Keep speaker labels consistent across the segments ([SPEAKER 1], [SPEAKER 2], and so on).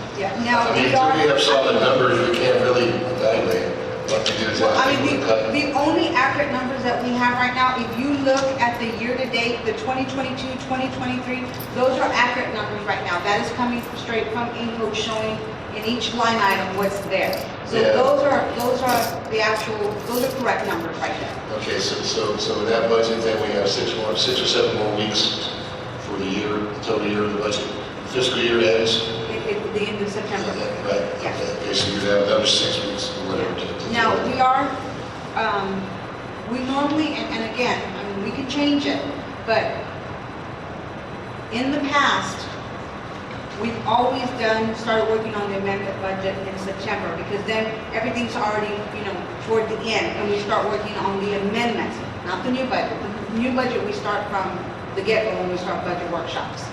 [SPEAKER 1] I mean, until we have solid numbers, we can't really evaluate what to do is
[SPEAKER 2] I
[SPEAKER 1] ask
[SPEAKER 2] mean,
[SPEAKER 1] people to
[SPEAKER 2] the,
[SPEAKER 1] cut.
[SPEAKER 2] the only accurate numbers that we have right now, if you look at the year-to-date, the 2022, 2023, those are accurate numbers right now. That is coming straight from Inco showing in each line item what's there. So
[SPEAKER 1] Yeah.
[SPEAKER 2] those are, those are the actual, those are correct numbers right there.
[SPEAKER 1] Okay, so, so, so with that budget, then we have six more, six or seven more weeks for the year, total year of the budget. Fiscal year ends,
[SPEAKER 2] It, it, the end of September.
[SPEAKER 1] right, okay, so you have another six weeks or whatever. to- to-
[SPEAKER 2] Now, we are, um, we normally, and, and again, I mean, we can change it, but in the past, we've always done, started working on the amendment budget in September, because then everything's already, you know, toward the end, and we start working on the amendments, not the new budget. The new budget, we start from the get-go when we start budget workshops.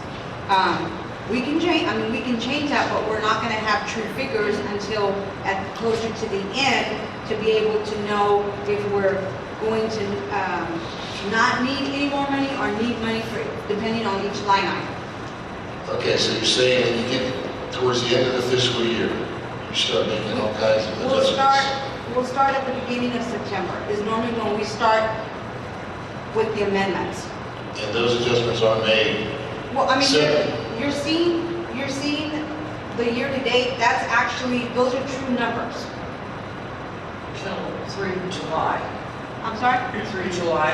[SPEAKER 2] Um, We can change, I mean, we can change that, but we're not gonna have true figures until at, closer to the end, to be able to know if we're going to, um, not need any more money or need money for, depending on each line item.
[SPEAKER 1] Okay, so you're saying when you get towards the end of the fiscal year, you start making all kinds of
[SPEAKER 2] We'll start,
[SPEAKER 1] adjustments.
[SPEAKER 2] we'll start at the beginning of September, is normally when we start with the amendments.
[SPEAKER 1] And those adjustments are made,
[SPEAKER 2] Well, I mean,
[SPEAKER 1] Seven.
[SPEAKER 2] you're, you're seeing, you're seeing the year-to-date, that's actually, those are true numbers.
[SPEAKER 3] till through July,
[SPEAKER 2] I'm sorry?
[SPEAKER 3] through July.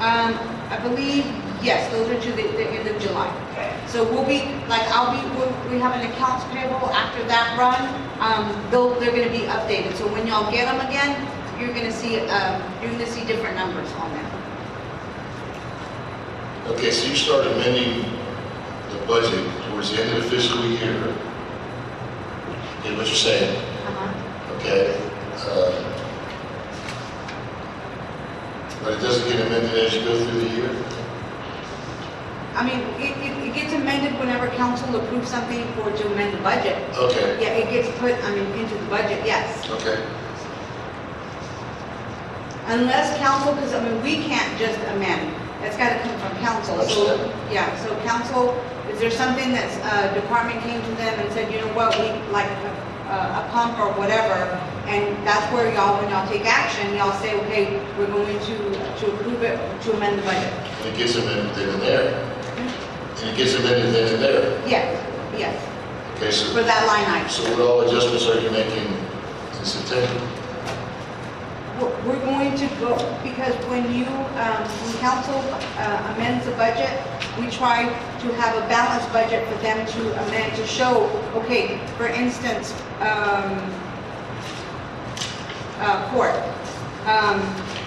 [SPEAKER 2] Um, I believe, yes, those are to the, the end of July.
[SPEAKER 3] Okay.
[SPEAKER 2] So we'll be, like, I'll be, we'll- we have an accounts payable after that run. Um, they'll, they're gonna be updated. So when y'all get them again, you're gonna see, um, you're gonna see different numbers on them.
[SPEAKER 1] okay, so you start amending the budget towards the end of the fiscal year. Get what you're saying?
[SPEAKER 2] Uh-huh.
[SPEAKER 1] okay? um, But it doesn't get amended as you go through the year?
[SPEAKER 2] I mean, it, it, it gets amended whenever council approves something for to amend the budget.
[SPEAKER 1] Okay,
[SPEAKER 2] Yeah, it gets put, I mean, into the budget, yes.
[SPEAKER 1] okay,
[SPEAKER 2] Unless council, because I mean, we can't just amend. That's gotta come from council, so,
[SPEAKER 1] Understand.
[SPEAKER 2] yeah, so council, is there something that's, uh, department came to them and said, you know what, we like a, a pump or whatever, and that's where y'all, when y'all take action, y'all say, okay, we're going to, to approve it, to amend the budget.
[SPEAKER 1] and it gets amended then and there. And it gets amended then and there.
[SPEAKER 2] Yes, yes,
[SPEAKER 1] Okay,
[SPEAKER 2] for
[SPEAKER 1] so,
[SPEAKER 2] that line item.
[SPEAKER 1] so what all adjustments are you making in September?
[SPEAKER 2] We're we're going to go, because when you, um, when council uh, amends the budget, we try to have a balanced budget for them to amend, to show, okay, for instance, um, uh, court, um,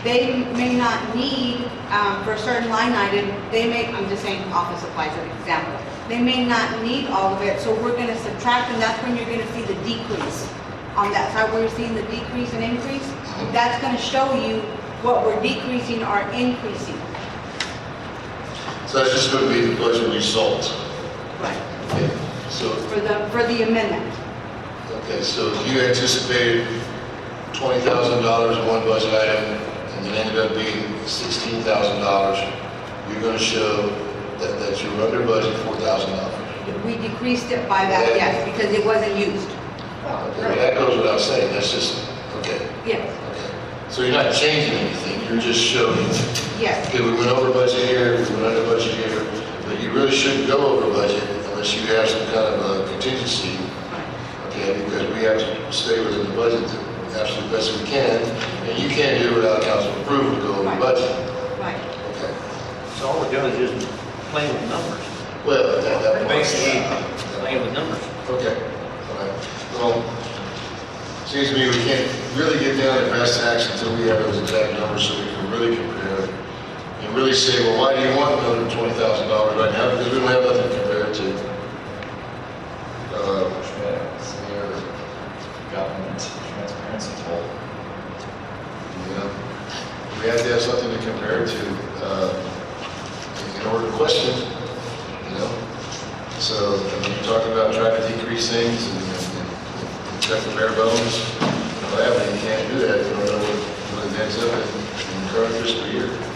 [SPEAKER 2] they may not need, um, for a certain line item, they may, I'm just saying office supplies as an example, they may not need all of it, so we're gonna subtract, and that's when you're gonna see the decrease on that side where you're seeing the decrease and increase, that's gonna show you what we're decreasing or increasing.
[SPEAKER 1] So that's just going to be the budget result.
[SPEAKER 2] Right.
[SPEAKER 1] Okay, So,
[SPEAKER 2] For the, for the amendment.
[SPEAKER 1] okay, so if you anticipated twenty thousand dollars in one budget item, and it ended up being sixteen thousand dollars, you're going to show that, that you're under budget four thousand dollars.
[SPEAKER 2] We decreased it by that, yes, because it wasn't used.
[SPEAKER 1] Okay, well, that goes without saying, that's just, okay,
[SPEAKER 2] Yes,
[SPEAKER 1] okay. So you're not changing anything, you're just showing,
[SPEAKER 2] yes.
[SPEAKER 1] okay, we went over budget here, we went under budget here, but you really shouldn't go over budget unless you have some kind of a contingency, okay, because we have to stay within the budget the absolute best we can, and you can't do it without council approval to go over
[SPEAKER 2] Right.
[SPEAKER 1] budget,
[SPEAKER 2] Right.
[SPEAKER 1] okay?
[SPEAKER 4] So all we're doing is just playing with numbers.
[SPEAKER 1] Well, that, that part's-
[SPEAKER 4] Basically, playing with numbers.
[SPEAKER 1] Okay, all right. Well, seems to me we can't really get down to brass tacks until we have those exact numbers so we can really compare it. And really say, well, why do you want another twenty thousand dollars right now? Because we don't have nothing to compare it to. Uh,
[SPEAKER 5] Smear government transparency tool.
[SPEAKER 1] you know, we have to have something to compare it to, uh, in order to question, you know? So, I mean, you're talking about trying to decrease things and, and and check the bare bones, and all that, but you can't do that, you don't know what, what it ends up in, in the current fiscal year.